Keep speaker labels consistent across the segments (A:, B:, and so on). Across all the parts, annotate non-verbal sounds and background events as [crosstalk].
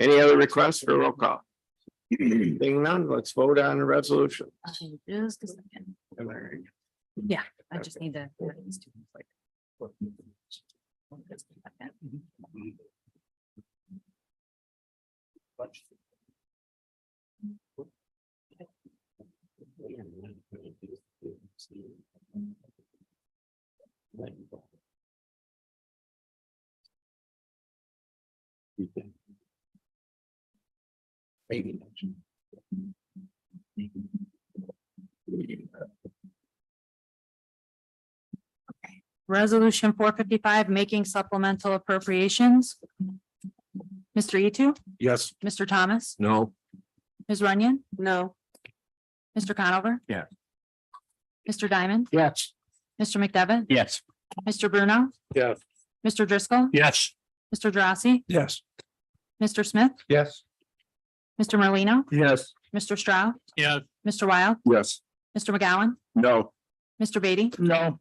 A: Any other requests for roll [clears throat] call? Being none, let's vote on the resolution.
B: Okay, Just a second. Yeah, I just need to.
A: Maybe.
B: Resolution four fifty-five, making supplemental appropriations. Mr. Etu,
A: Yes.
B: Mr. Thomas,
A: No.
B: Ms. Runyon? No. Mr. Conover?
A: Yeah.
B: Mr. Diamond,
A: Yes.
B: Mr. McDevitt,
A: Yes.
B: Mr. Bruno?
A: Yes.
B: Mr. Driscoll,
A: Yes.
B: Mr. Drossy,
A: Yes.
B: Mr. Smith,
A: Yes.
B: Mr. Merlino,
A: Yes.
B: Mr. Stroud,
A: Yes.
B: Mr. Wild,
A: Yes.
B: Mr. McGowan,
A: No.
B: Mr. Beatty,
A: No.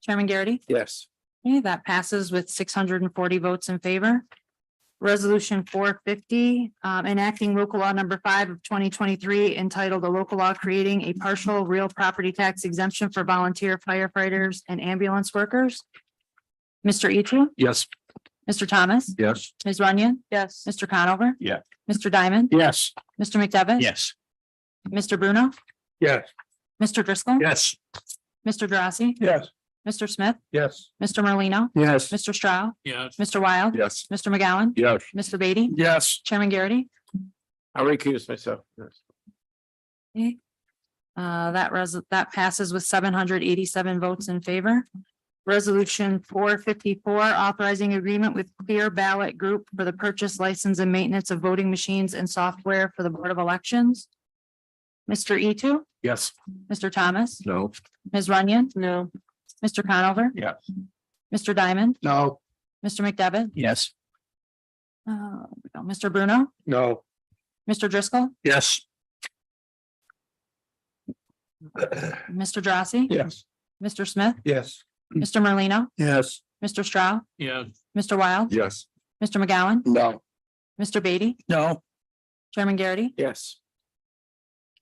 B: Chairman Garrity.
A: Yes.
B: Okay, that passes with six hundred and forty votes in favor. Resolution four fifty, um, enacting local law number five of twenty twenty-three entitled "A local law creating a partial real property tax exemption for volunteer firefighters and ambulance workers. Mr. Etu,
A: Yes.
B: Mr. Thomas,
A: Yes.
B: Ms. Runyon. Yes. Mr. Conover.
A: Yeah.
B: Mr. Diamond,
A: Yes.
B: Mr. McDevitt.
A: Yes.
B: Mr. Bruno,
A: Yes.
B: Mr. Driscoll.
A: Yes.
B: Mr. Drossy,
A: Yes.
B: Mr. Smith,
A: Yes.
B: Mr. Merlino,
A: Yes.
B: Mr. Stroud,
A: Yes.
B: Mr. Wild,
A: Yes.
B: Mr. McGowan,
A: Yes.
B: Mr. Beatty,
A: Yes.
B: Chairman Garrity.
A: I recuse myself. Yes.
B: Uh, that res- that passes with seven hundred eighty-seven votes in favor. Resolution four fifty-four, authorizing agreement with Clear Ballot Group for the purchase, license, and maintenance of voting machines and software for the Board of Elections. Mr. Etu,
A: Yes.
B: Mr. Thomas,
A: No.
B: Ms. Runyon. No. Mr. Conover.
A: Yes.
B: Mr. Diamond,
A: No.
B: Mr. McDevitt,
A: Yes.
B: uh, Mr. Bruno,
A: No.
B: Mr. Driscoll,
A: Yes.
B: Mr. Drossy.
A: Yes.
B: Mr. Smith,
A: Yes.
B: Mr. Merlino,
A: Yes.
B: Mr. Stroud,
A: Yes.
B: Mr. Wild,
A: Yes.
B: Mr. McGowan,
A: No.
B: Mr. Beatty,
A: No.
B: Chairman Garrity.
A: Yes.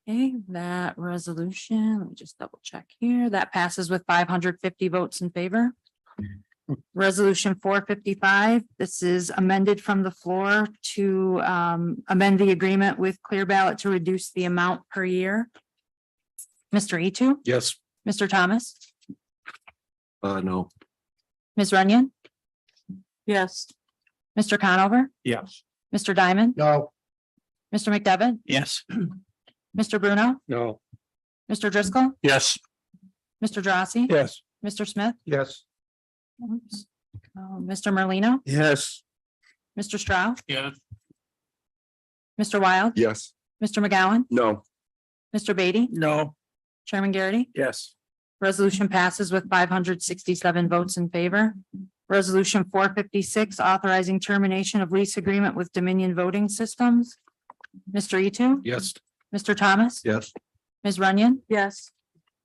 B: Okay, that resolution, let me just double check here. That passes with five hundred fifty votes in favor. Resolution four fifty-five, this is amended from the floor to um, amend the agreement with Clear Ballot to reduce the amount per year. Mr. Etu,
A: Yes.
B: Mr. Thomas,
A: Uh, no.
B: Ms. Runyon. Yes. Mr. Conover,
A: Yes.
B: Mr. Diamond,
A: No.
B: Mr. McDevitt,
A: Yes.
B: Mr. Bruno,
A: No.
B: Mr. Driscoll,
A: Yes.
B: Mr. Drossy,
A: Yes.
B: Mr. Smith,
A: Yes.
B: Oops. Uh, Mr. Merlino,
A: Yes.
B: Mr. Stroud,
A: Yes.
B: Mr. Wild,
A: Yes.
B: Mr. McGowan,
A: No.
B: Mr. Beatty,
A: No.
B: Chairman Garrity.
A: Yes.
B: Resolution passes with five hundred sixty-seven votes in favor. Resolution four fifty-six, authorizing termination of lease agreement with Dominion Voting Systems. Mr. Etu,
A: Yes.
B: Mr. Thomas,
A: Yes.
B: Ms. Runyon. Yes.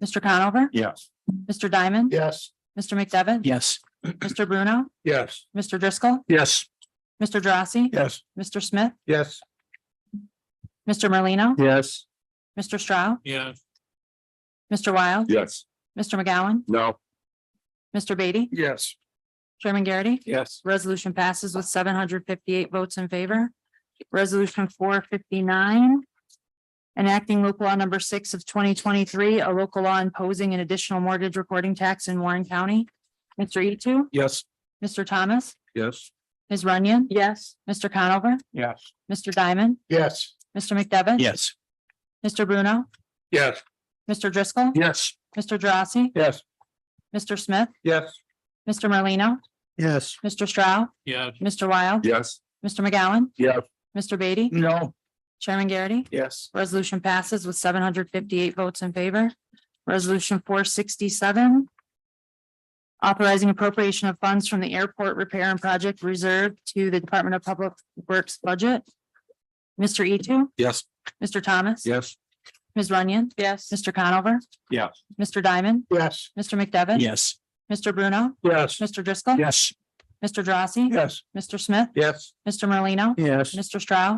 B: Mr. Conover,
A: Yes.
B: Mr. Diamond.
A: Yes.
B: Mr. McDevitt.
A: Yes.
B: Mr. Bruno,
A: Yes.
B: Mr. Driscoll,
A: Yes.
B: Mr. Drossy,
A: Yes.
B: Mr. Smith,
A: Yes.
B: Mr. Merlino,
A: Yes.
B: Mr. Stroud,
A: Yes.
B: Mr. Wild,
A: Yes.
B: Mr. McGowan,
A: No.
B: Mr. Beatty,
A: Yes.
B: Chairman Garrity.
A: Yes.
B: Resolution passes with seven hundred fifty-eight votes in favor. Resolution four fifty-nine. Enacting local law number six of twenty twenty-three, a local law imposing an additional mortgage recording tax in Warren County. Mr. Etu,
A: Yes.
B: Mr. Thomas,
A: Yes.
B: Ms. Runyon. Yes. Mr. Conover,
A: Yes.
B: Mr. Diamond,
A: Yes.
B: Mr. McDevitt.
A: Yes.
B: Mr. Bruno,
A: Yes.
B: Mr. Driscoll,
A: Yes.
B: Mr. Drossy,
A: Yes.
B: Mr. Smith,
A: Yes.
B: Mr. Merlino,
A: Yes.
B: Mr. Stroud,
A: Yes.
B: Mr. Wild,
A: Yes.
B: Mr. McGowan,
A: Yes.
B: Mr. Beatty,
A: No.
B: Chairman Garrity.
A: Yes.
B: Resolution passes with seven hundred fifty-eight votes in favor. Resolution four sixty-seven. Authorizing appropriation of funds from the airport repair and project reserve to the Department of Public Works budget. Mr. Etu,
A: Yes.
B: Mr. Thomas.
A: Yes.
B: Ms. Runyon. Yes. Mr. Conover.
A: Yes.
B: Mr. Diamond,
A: Yes.
B: Mr. McDevitt.
A: Yes.
B: Mr. Bruno,
A: Yes.
B: Mr. Driscoll.
A: Yes.
B: Mr. Drossy?
A: Yes.
B: Mr. Smith?
A: Yes.
B: Mr. Merlino?
A: Yes.
B: Mr. Straugh?